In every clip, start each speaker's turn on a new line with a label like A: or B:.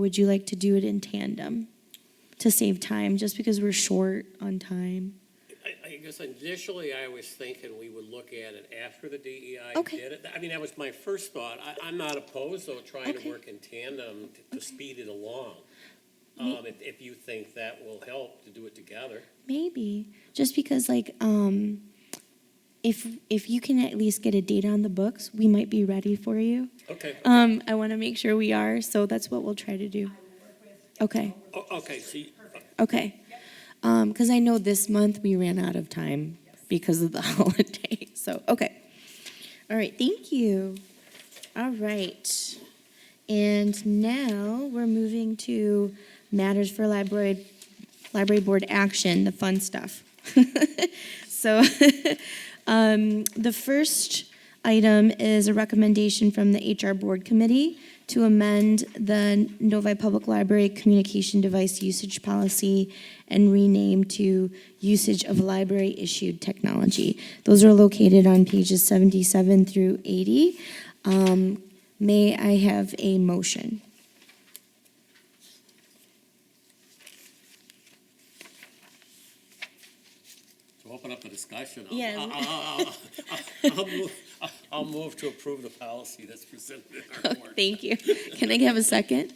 A: Would you like to do it in tandem to save time, just because we're short on time?
B: I, I guess initially I was thinking we would look at it after the DEI
A: Okay.
B: did it. I mean, that was my first thought. I, I'm not opposed though, trying
A: Okay.
B: to work in tandem to, to speed it along. Um, if, if you think that will help to do it together.
A: Maybe, just because like, um, if, if you can at least get a date on the books, we might be ready for you.
B: Okay,
A: Um, I want to make sure we are, so that's what we'll try to do. Okay,
B: o- okay, see,
A: okay. Um, because I know this month we ran out of time because of the holiday, so, okay.
C: All right, thank you. All right. And now we're moving to matters for library, library board action, the fun stuff. So um, the first item is a recommendation from the HR Board Committee to amend the Novi Public Library Communication Device Usage Policy and rename to Usage of Library-Issued Technology. Those are located on pages 77 through 80. Um, May I have a motion?
B: to open up the discussion. I'll-
C: Yeah.
B: I'll- I'll- I'll- I'll move- I'll- I'll move to approve the policy that's presented in our board.
C: Thank you. Can I have a second?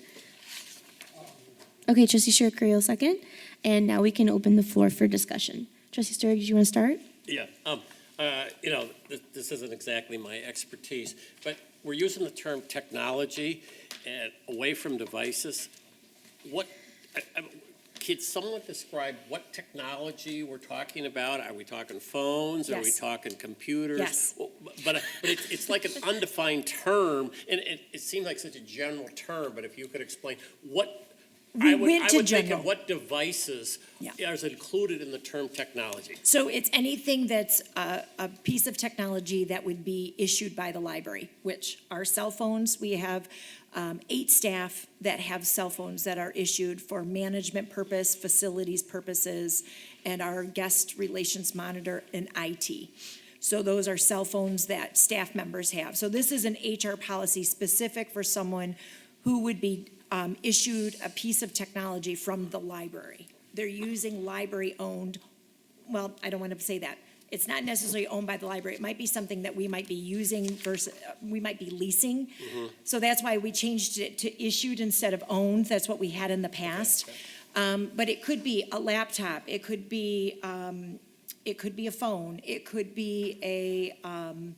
A: Okay, trustee Sherrill, second, and now we can open the floor for discussion. Trustee Sturg, do you want to start?
B: Yeah, um, uh, you know, th- this isn't exactly my expertise, but we're using the term technology and away from devices. What, I, I, could someone describe what technology we're talking about? Are we talking phones? Are we
A: Yes.
B: talking computers?
A: Yes.
B: Well, But, uh, but it's, it's like an undefined term, and it, it seemed like such a general term, but if you could explain, what, I
D: We
B: would, I
D: went to
B: would think
D: general.
B: of what devices
D: Yeah.
B: is included in the term technology?
D: So it's anything that's a, a piece of technology that would be issued by the library, which are cell phones. We have um, eight staff that have cell phones that are issued for management purpose, facilities purposes, and our guest relations monitor and IT. So those are cell phones that staff members have. So this is an HR policy specific for someone who would be um, issued a piece of technology from the library. They're using library-owned well, I don't want to say that. It's not necessarily owned by the library. It might be something that we might be using versus, uh, we might be leasing. So that's why we changed it to issued instead of owned. That's what we had in the past. Um, but it could be a laptop, it could be, um, it could be a phone, it could be a, um,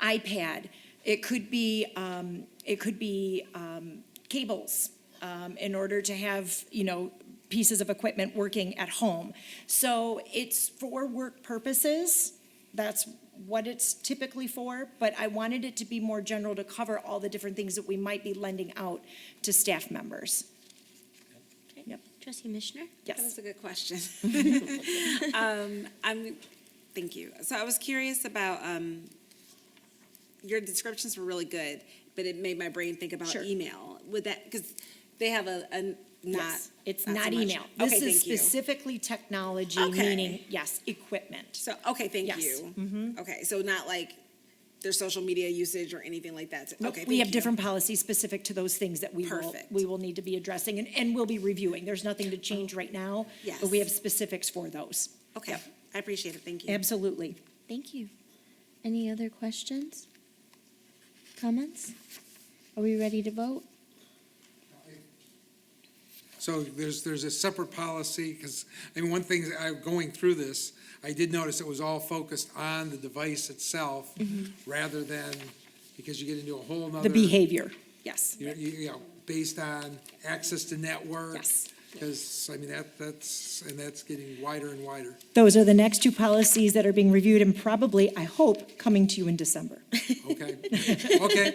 D: iPad, it could be, um, it could be, um, cables, um, in order to have, you know, pieces of equipment working at home. So it's for work purposes. That's what it's typically for, but I wanted it to be more general to cover all the different things that we might be lending out to staff members. Yep.
A: Trustee Mishner?
D: Yes.
E: That was a good question. um, I'm, thank you. So I was curious about um, your descriptions were really good, but it made my brain think about
D: Sure.
E: email. Would that because they have a, a not
D: Yes, It's
E: so
D: not
E: much.
D: email.
E: Okay,
D: This is
E: thank you.
D: specifically technology,
E: Okay.
D: meaning, yes, equipment.
E: So okay, thank
D: Yes. Mm-hmm.
E: you. Okay, so not like their social media usage or anything like that. So-
D: Nope,
E: okay,
D: We
E: thank
D: have
E: you.
D: different policies specific to those things that we will,
E: Perfect. Oh,
D: we will need to be addressing and, and we'll be reviewing. There's nothing to change right now. But we
E: Yes.
D: have specifics for those.
E: Okay,
D: Yep.
E: I appreciate it. Thank you.
D: Absolutely.
A: Thank you. Any other questions? Comments? Are we ready to vote?
F: So there's, there's a separate policy, because, I mean, one thing, I, going through this, I did notice it was all focused on the device itself, rather than, because you get into a whole nother.
D: Mm-hmm. The behavior, yes.
F: You, you you know, based on access to network.
D: Yes.
F: Because, I mean, that, that's, and that's getting wider and wider.
D: Those are the next two policies that are being reviewed and probably, I hope, coming to you in December.
F: Okay, okay,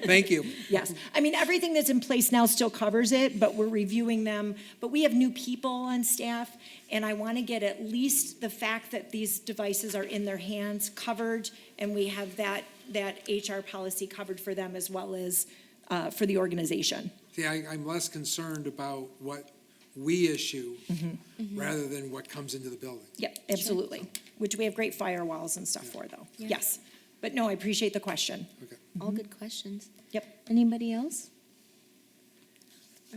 F: thank you.
D: Yes. I mean, everything that's in place now still covers it, but we're reviewing them. But we have new people on staff, and I want to get at least the fact that these devices are in their hands covered, and we have that, that HR policy covered for them as well as uh, for the organization.
F: See, I, I'm less concerned about what we issue,
D: Mm-hmm.
F: rather than what comes into the building.
D: Yep, absolutely. Which we have great firewalls and stuff for, though. Yes. But no, I appreciate the question.
C: Mm-hmm.
F: Okay.
A: All good questions.
D: Yep.
A: Anybody else?